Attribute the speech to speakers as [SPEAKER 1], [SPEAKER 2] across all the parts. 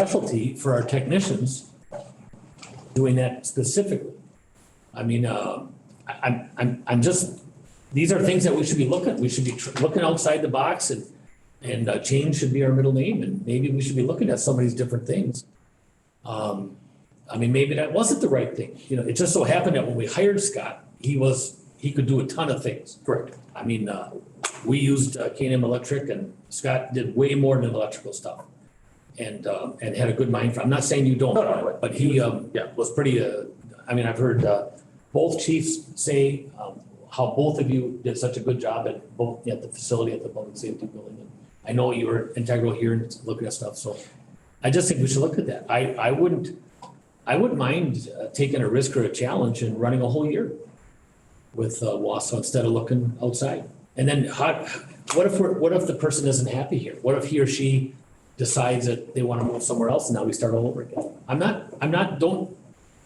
[SPEAKER 1] specialty for our technicians, doing that specifically. I mean, uh, I, I'm, I'm, I'm just, these are things that we should be looking, we should be tr- looking outside the box and, and uh, change should be our middle name, and maybe we should be looking at some of these different things. Um, I mean, maybe that wasn't the right thing, you know, it just so happened that when we hired Scott, he was, he could do a ton of things. Correct. I mean, uh, we used uh, K and M Electric and Scott did way more than electrical stuff. And, uh, and had a good mind for, I'm not saying you don't,
[SPEAKER 2] No, no, but-
[SPEAKER 1] but he, um,
[SPEAKER 2] Yeah.
[SPEAKER 1] was pretty, uh, I mean, I've heard, uh, both chiefs say, um, how both of you did such a good job at both, at the facility, at the public safety building. And I know you were integral here and looking at stuff, so I just think we should look at that. I, I wouldn't, I wouldn't mind uh, taking a risk or a challenge and running a whole year with uh, Wausau instead of looking outside. And then how, what if we're, what if the person isn't happy here? What if he or she decides that they want to move somewhere else and now we start all over again? I'm not, I'm not, don't,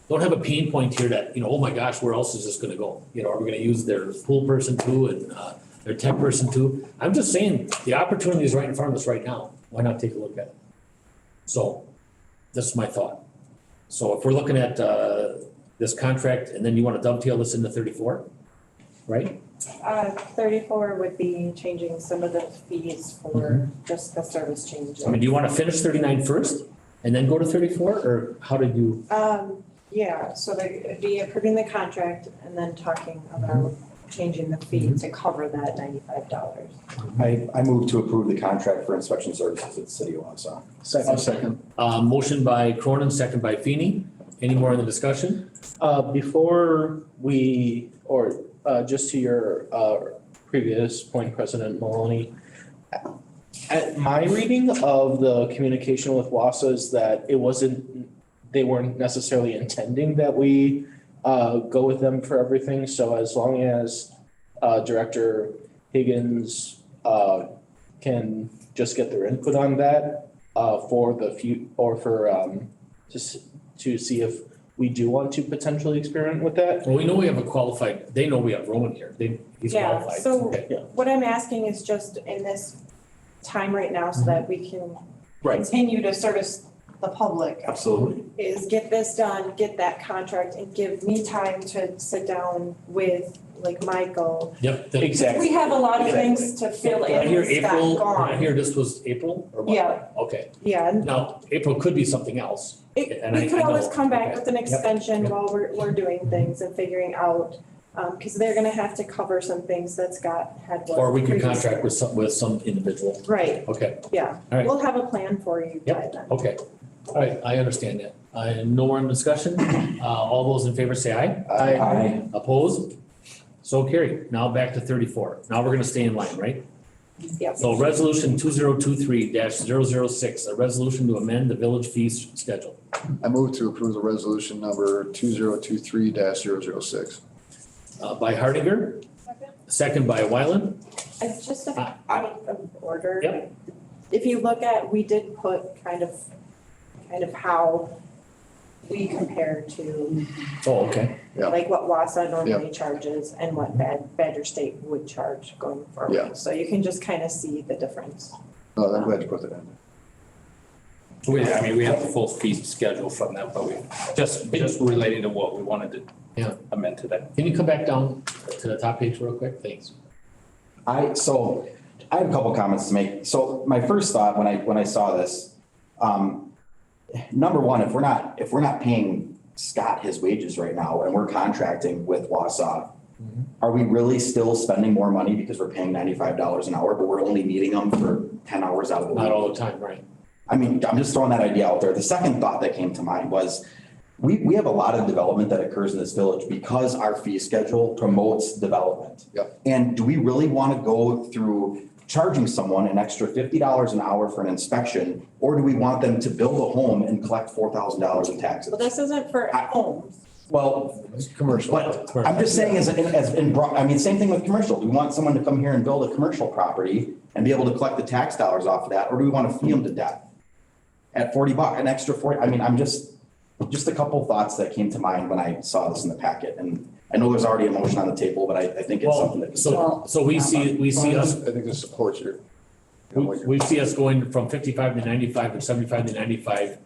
[SPEAKER 1] don't have a pain point here that, you know, oh my gosh, where else is this gonna go? You know, are we gonna use their pool person too and uh, their tech person too? I'm just saying, the opportunity is right in front of us right now. Why not take a look at it? So this is my thought. So if we're looking at uh, this contract and then you want to dovetail this into thirty-four, right?
[SPEAKER 3] Uh, thirty-four would be changing some of the fees for just the service changes.
[SPEAKER 1] I mean, do you want to finish 39 first and then go to thirty-four or how did you?
[SPEAKER 3] Um, yeah, so they- it'd be approving the contract and then talking about changing the fee to cover that ninety-five dollars.
[SPEAKER 4] I, I move to approve the contract for inspection services at the City of Wausau.
[SPEAKER 2] Second.
[SPEAKER 1] Uh, motion by Cronin, second by Feeny. Any more in the discussion?
[SPEAKER 2] Uh, before we, or, uh, just to your, uh, previous point, President Maloney. At my reading of the communication with WASA is that it wasn't, they weren't necessarily intending that we, uh, go with them for everything, so as long as, uh, Director Higgins, uh, can just get their input on that, uh, for the few, or for, um, just to see if we do want to potentially experiment with that.
[SPEAKER 1] Well, we know we have a qualified, they know we have Roman here. They, he's
[SPEAKER 3] Yeah,
[SPEAKER 1] qualified.
[SPEAKER 3] so-
[SPEAKER 1] Okay.
[SPEAKER 3] What I'm asking is just in this time right now so that we can
[SPEAKER 2] Right.
[SPEAKER 3] continue to service the public
[SPEAKER 4] Absolutely.
[SPEAKER 3] is get this done, get that contract and give me time to sit down with like Michael.
[SPEAKER 1] Yep. that-
[SPEAKER 2] Exactly.
[SPEAKER 3] We have a lot of things to fill
[SPEAKER 1] Did I
[SPEAKER 3] in,
[SPEAKER 1] hear
[SPEAKER 3] it's not
[SPEAKER 1] April, did I
[SPEAKER 3] gone.
[SPEAKER 1] hear this was April or what?
[SPEAKER 3] Yeah.
[SPEAKER 1] Okay.
[SPEAKER 3] Yeah, and
[SPEAKER 1] Now, April could be something else.
[SPEAKER 3] It,
[SPEAKER 1] And I-
[SPEAKER 3] we could
[SPEAKER 1] I
[SPEAKER 3] always
[SPEAKER 1] know.
[SPEAKER 3] come back
[SPEAKER 1] Okay.
[SPEAKER 3] with an extension
[SPEAKER 1] Yep.
[SPEAKER 3] while we're, we're doing things and figuring out, um, cause they're gonna have to cover some things that Scott had. worked
[SPEAKER 1] Or we could
[SPEAKER 3] previously.
[SPEAKER 1] contract with some, with some individual.
[SPEAKER 3] Right,
[SPEAKER 1] Okay,
[SPEAKER 3] yeah.
[SPEAKER 1] All right. Oh,
[SPEAKER 3] We'll have a plan for you by then.
[SPEAKER 1] okay. All right, I understand that. I, no more in discussion. Uh, all those in favor say aye.
[SPEAKER 4] Uh, Aye.
[SPEAKER 1] Opposed? So carried. Now back to thirty-four. Now we're gonna stay in line, right?
[SPEAKER 3] Yep.
[SPEAKER 1] So resolution two zero two three 6 a resolution to amend the village fees schedule.
[SPEAKER 5] I move to approve the resolution number two zero two three 6
[SPEAKER 1] Uh, by Hardinger, second by Wyland.
[SPEAKER 3] It's just a
[SPEAKER 1] I-
[SPEAKER 3] point of order.
[SPEAKER 1] Ah. Yep.
[SPEAKER 3] If you look at, we did put kind of, kind of how we compare to,
[SPEAKER 1] Oh, okay.
[SPEAKER 5] Yeah.
[SPEAKER 3] like what Wassa normally charges and what Bad, Badger State would charge going forward.
[SPEAKER 5] Yeah.
[SPEAKER 3] So you can just kind of see the difference.
[SPEAKER 5] No, I'm glad you put that in.
[SPEAKER 6] We, I mean, we have the full fee schedule from that, but we, just, just relating to what we wanted to.
[SPEAKER 1] Yeah.
[SPEAKER 6] Amend to that.
[SPEAKER 1] Can you come back down to the top page real quick? Thanks.
[SPEAKER 4] I, so, I have a couple comments to make. So my first thought when I, when I saw this, um, number one, if we're not, if we're not paying Scott his wages right now and we're contracting with Wausau,
[SPEAKER 5] Mm-hmm.
[SPEAKER 4] are we really still spending more money because we're paying ninety-five dollars an hour, but we're only needing them for ten hours out of the week?
[SPEAKER 1] Not all the time, right?
[SPEAKER 4] I mean, I'm just throwing that idea out there. The second thought that came to mind was we, we have a lot of development that occurs in this village because our fee schedule promotes development.
[SPEAKER 5] Yep.
[SPEAKER 4] And do we really want to go through charging someone an extra fifty dollars an hour for an inspection? Or do we want them to build a home and collect four thousand dollars in taxes?
[SPEAKER 3] Well, this isn't for
[SPEAKER 4] I-
[SPEAKER 3] homes.
[SPEAKER 4] Well,
[SPEAKER 1] It's commercial.
[SPEAKER 4] But I'm just saying as, as in broad, I mean, same thing with commercial. Do we want someone to come here and build a commercial property and be able to collect the tax dollars off of that, or do we want to fee them to death? At forty buck, an extra forty, I mean, I'm just, just a couple thoughts that came to mind when I saw this in the packet. And I know there's already a motion on the table, but I, I think it's something
[SPEAKER 1] Well,
[SPEAKER 4] that.
[SPEAKER 1] so, so we see, we see us,
[SPEAKER 5] I think this supports your,
[SPEAKER 1] We, we see us going from fifty-five to ninety-five and seventy-five to ninety-five